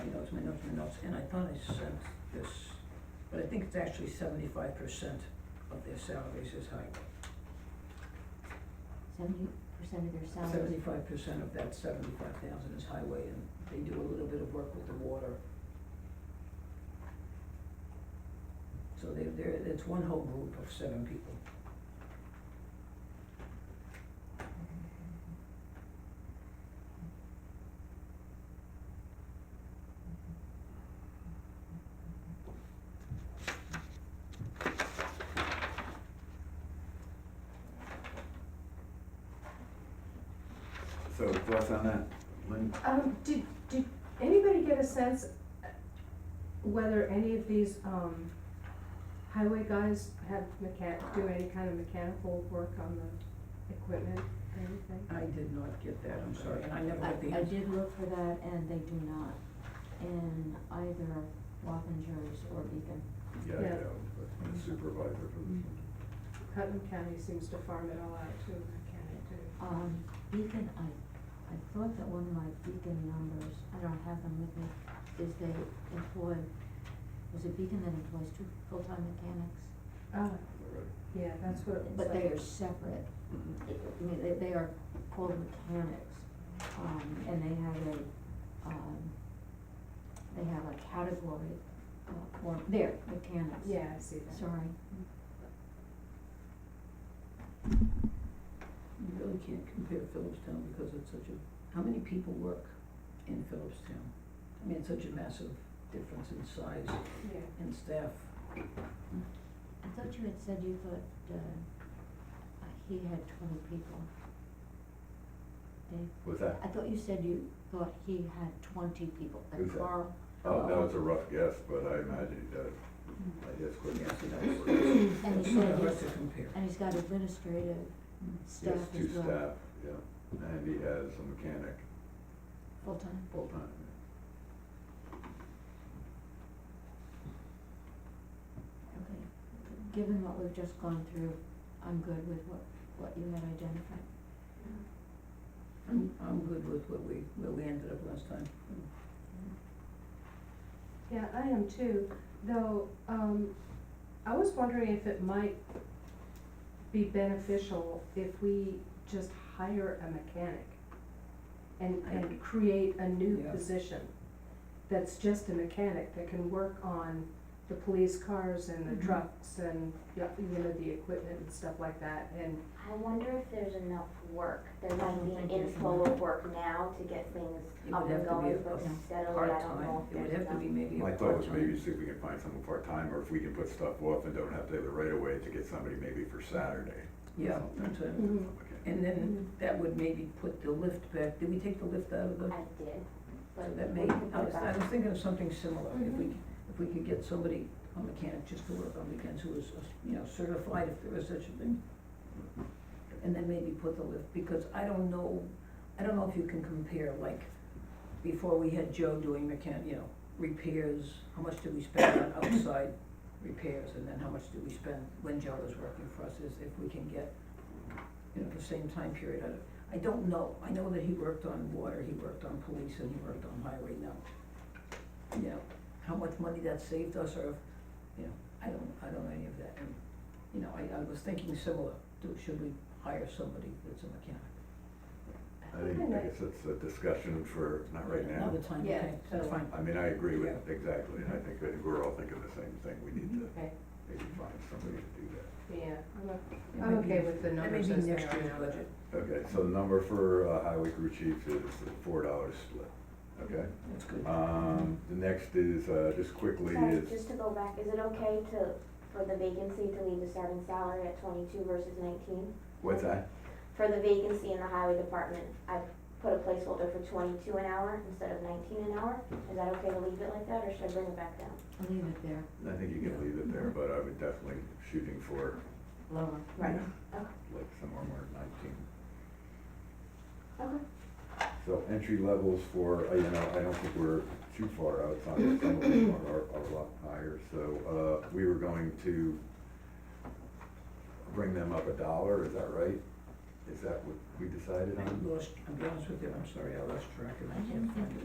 up your notes, and I thought I sent this, but I think it's actually seventy-five percent of their salaries is highway. Seventy percent of their salary. Seventy-five percent of that seventy-five thousand is highway, and they do a little bit of work with the water. So they, they're, it's one whole group of seven people. So thoughts on that, Lynn? Um, did, did anybody get a sense whether any of these, um, highway guys have mechan, do any kind of mechanical work on the equipment or anything? I did not get that, I'm sorry, and I never I, got the I answer. did look for that and they do not in either Wappingers or Beacon. Yeah, Yeah. yeah, but I'm a supervisor for this one. Putnam County seems to farm it all out to a mechanic, too. Um, Beacon, I, I thought that one of my Beacon numbers, I don't have them with me, is they employ, was it Beacon that employs two full-time mechanics? Oh, Alright. yeah, that's what it looks like. But they are separate, Mhm. I mean, they, they are called mechanics, um, and they have a, um, they have a category, uh, for, they're mechanics. Yeah, I see that. Sorry, You really can't compare Phillipstown because it's such a, how many people work in Phillipstown? I mean, it's such a massive difference in size Yeah. and staff. I thought you had said you thought, uh, uh, he had twenty people. Dave? What's that? I thought you said you thought he had twenty people, Who's like that? Carl. Oh, that was a rough guess, but I imagine he does. I guess Yes, couldn't. it is. And It's he sort said of hard he's, to compare. and he's got administrative He staff has as two well. staff, yeah, and he has a mechanic Full-time. full-time. Okay, given what we've just gone through, I'm good with what, what you had identified. I'm, I'm good with what we, where we ended up last time. Oh, Yeah, I am too, though, um, I was wondering if it might be beneficial if we just hire a mechanic and, and create a new Yeah. position that's just a mechanic that can work on the police cars and Mhm. Mm-hmm. the trucks and, you know, the equipment and stuff like that, and, I wonder if there's enough work, there I don't might be think an there's inflow enough. of work now to get things It up would have and to be going, a- but yeah, steadily, I don't know Part-time, if it would have there's to enough. be maybe a My part-time. thought was maybe see if we can find someone part-time, or if we can put stuff off and don't have to have the right of way to get somebody maybe for Saturday. Yeah, that's it. Okay. And then that would maybe put the lift back, did we take the lift out of the? I did, So but. that we may, can I put was, I that- was thinking of something similar, if we, Mhm. if we could get somebody, a mechanic, just to work on weekends, who is, uh, you know, certified if there is such a thing. And then maybe put the lift, because I don't know, I don't know if you can compare, like, before we had Joe doing mechan, you know, repairs, how much did we spend on outside repairs, and then how much did we spend when Joe was working for us, is if we can get, you know, the same time period out of I don't know, I know that he worked on water, he worked on police, and he worked on highway now. You know, how much money that saved us, or, if you know, I don't, I don't know any of that, and, you know, I, I was thinking similar, do, should we hire somebody that's a mechanic? I think, I guess it's a discussion for, not right now. Another time, Yeah, okay, that's so- fine, I mean, I agree with, exactly, and I think that we're all thinking the same thing, we need to Okay. maybe find somebody to do that. yeah, I'm, o- Yeah, I'm maybe- okay with the that may numbers be as they are now. next year's budget, Okay, so the number for uh, highway crew chief is four dollars split, okay? that's good. Um, the next is, uh, just quickly Sorry, is, just to go back, is it okay to, for the vacancy to leave the starting salary at twenty-two versus nineteen? what's that? For the vacancy in the highway department, I put a placeholder for twenty-two an hour instead of nineteen an hour, is that okay to leave it like that, or should I bring it back down? I'll leave it there, I think you can leave it there, but I would definitely shooting for, lower. you know, Okay, like somewhere more than nineteen. okay. So entry levels for, uh, you know, I don't think we're too far out, some some of them are, are- are a lot higher, so, uh, we were going to bring them up a dollar, is that right? Is that what we decided I on? lost, I'll be honest with you, I'm sorry, I lost track, and I can't find it.